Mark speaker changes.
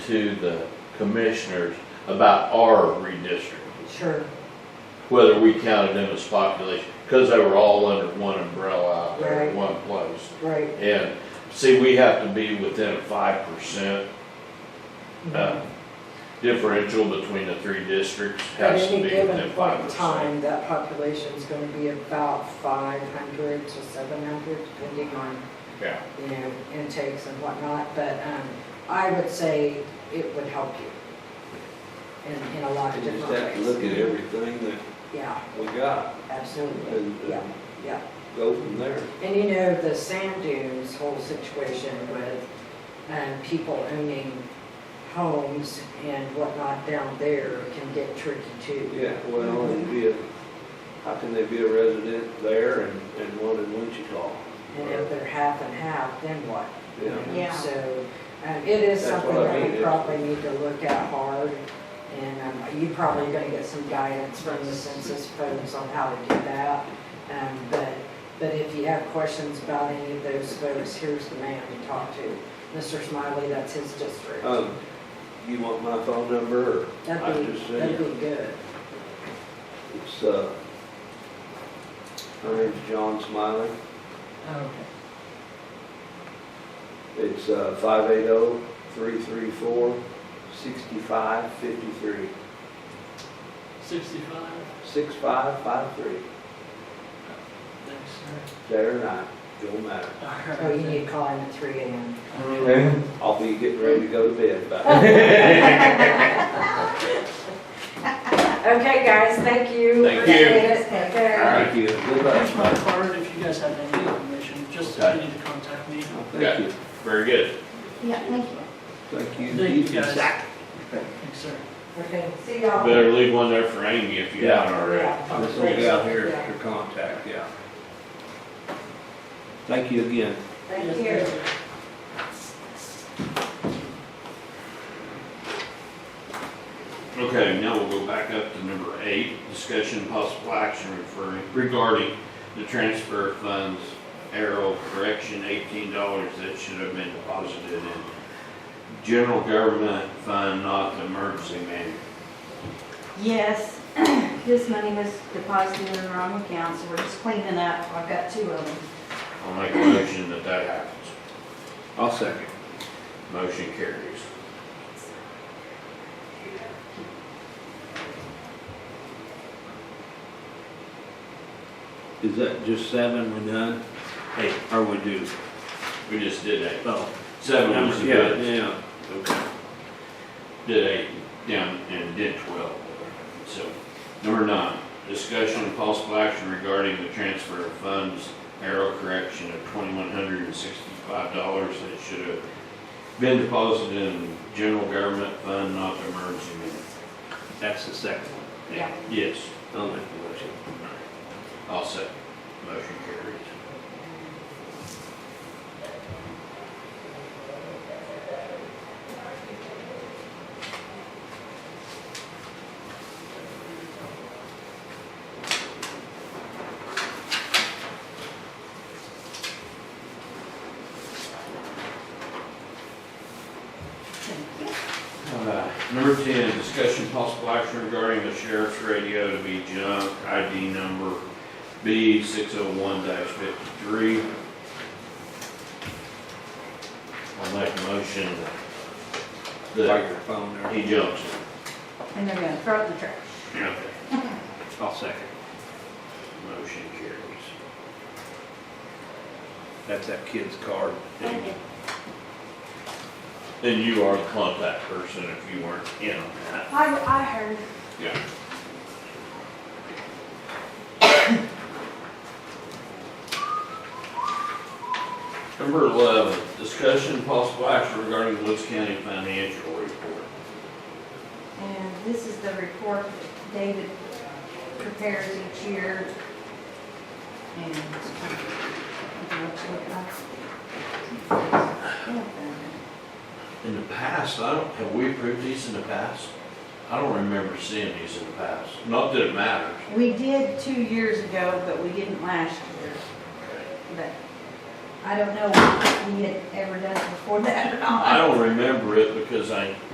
Speaker 1: to the commissioners about our redistricting,
Speaker 2: Sure,
Speaker 1: whether we counted them as population, because they were all under one umbrella out there in
Speaker 2: Right.
Speaker 1: one place.
Speaker 2: right.
Speaker 1: And, see, we have to be within five percent, uh, differential between the three districts
Speaker 2: Mm-hmm. At
Speaker 1: has to
Speaker 2: any
Speaker 1: be
Speaker 2: given
Speaker 1: within
Speaker 2: point
Speaker 1: five
Speaker 2: in
Speaker 1: percent.
Speaker 2: time, that population's gonna be about five hundred to seven hundred, depending on,
Speaker 1: Yeah.
Speaker 2: you know, intakes and whatnot, but, um, I would say it would help you in, in a lot of
Speaker 3: You just
Speaker 2: different
Speaker 3: have to
Speaker 2: ways.
Speaker 3: look at everything that
Speaker 2: Yeah,
Speaker 3: we got
Speaker 2: absolutely,
Speaker 3: and,
Speaker 2: yeah,
Speaker 3: and
Speaker 2: yeah.
Speaker 3: go from there.
Speaker 2: And you know, the sand dunes whole situation with, um, people owning homes and whatnot down there can get tricky too.
Speaker 3: Yeah, well, and be a, how can they be a resident there and, and one in Wichita?
Speaker 2: And if they're half and half, then what?
Speaker 3: You know?
Speaker 4: Yeah.
Speaker 2: So, um, it is
Speaker 3: That's
Speaker 2: something
Speaker 3: what I
Speaker 2: that
Speaker 3: mean,
Speaker 2: we
Speaker 3: it's-
Speaker 2: probably need to look at hard. And, um, you're probably gonna get some guidance from the census folks on how to do that. Um, but, but if you have questions about any of those folks, here's the man to talk to. Mr. Smiley, that's his district.
Speaker 3: Um, you want my phone number or? I
Speaker 2: That'd be,
Speaker 3: just
Speaker 2: that'd
Speaker 3: said,
Speaker 2: be good.
Speaker 3: it's, uh, my name's John Smiley.
Speaker 2: Okay.
Speaker 3: It's, uh, five eight oh, three three four, sixty-five fifty-three,
Speaker 5: Sixty-five,
Speaker 3: six five five three.
Speaker 5: thanks, sir.
Speaker 3: Day or night, don't matter.
Speaker 2: Oh, you need to call him at three AM.
Speaker 3: I'll be getting ready to go to bed about it.
Speaker 2: Okay, guys, thank you.
Speaker 1: Thank you.
Speaker 2: Appreciate it. Take care.
Speaker 3: Thank you. Good
Speaker 5: That's
Speaker 3: luck.
Speaker 5: my card, if you guys have any information, just if you need to contact me.
Speaker 3: Thank you.
Speaker 1: Very good.
Speaker 4: Yeah, thank you.
Speaker 3: Thank you.
Speaker 5: Thank you, guys. Thanks, sir.
Speaker 2: Okay, see y'all.
Speaker 1: Better leave one there for Amy if you haven't already.
Speaker 2: Yeah.
Speaker 3: This will be out here at your contact, yeah. Thank you again.
Speaker 2: Thank you.
Speaker 5: Yes, sir.
Speaker 1: Okay, now we'll go back up to number eight, discussion and possible action referring, regarding the transfer funds, arrow correction, eighteen dollars that should have been deposited in general government fund, not the emergency man.
Speaker 4: Yes, this money was deposited in the wrong account, so we're just cleaning up. I've got two of them.
Speaker 1: I'll make a motion that that happens.
Speaker 3: I'll second.
Speaker 1: Motion carries.
Speaker 3: Is that just seven we're done?
Speaker 1: Hey,
Speaker 3: Or we do?
Speaker 1: we just did eight.
Speaker 3: Oh.
Speaker 1: Seven was
Speaker 3: Yeah,
Speaker 1: good,
Speaker 3: yeah, okay.
Speaker 1: did eight down and did twelve. So, number nine, discussion and possible action regarding the transfer of funds, arrow correction of twenty-one hundred and sixty-five dollars that should have been deposited in general government fund, not the emergency man.
Speaker 3: That's the second one.
Speaker 4: Yeah.
Speaker 1: Yes,
Speaker 3: I'll make the motion.
Speaker 1: I'll second. Motion carries. Uh, Number 10, discussion possible action regarding the sheriff's radio to be junk, ID number B601-53. I'll make a motion
Speaker 3: Like
Speaker 1: that
Speaker 3: your phone
Speaker 1: that
Speaker 3: there.
Speaker 1: he jumps.
Speaker 4: And they're gonna throw it in the trash.
Speaker 1: Okay,
Speaker 3: I'll second.
Speaker 1: motion carries.
Speaker 3: That's that kid's card.
Speaker 4: Thank you.
Speaker 1: Then you are the contact person if you weren't in on that.
Speaker 4: I, I heard.
Speaker 1: Yeah. Number 11, discussion possible action regarding Woods County financial report.
Speaker 4: And this is the report that David prepares each year. And.
Speaker 1: In the past, I don't, have we approved these in the past? I don't remember seeing these in the past. Not that it matters.
Speaker 4: We did two years ago, but we didn't last year. But I don't know if we had ever done it before that or not.
Speaker 1: I don't remember it because I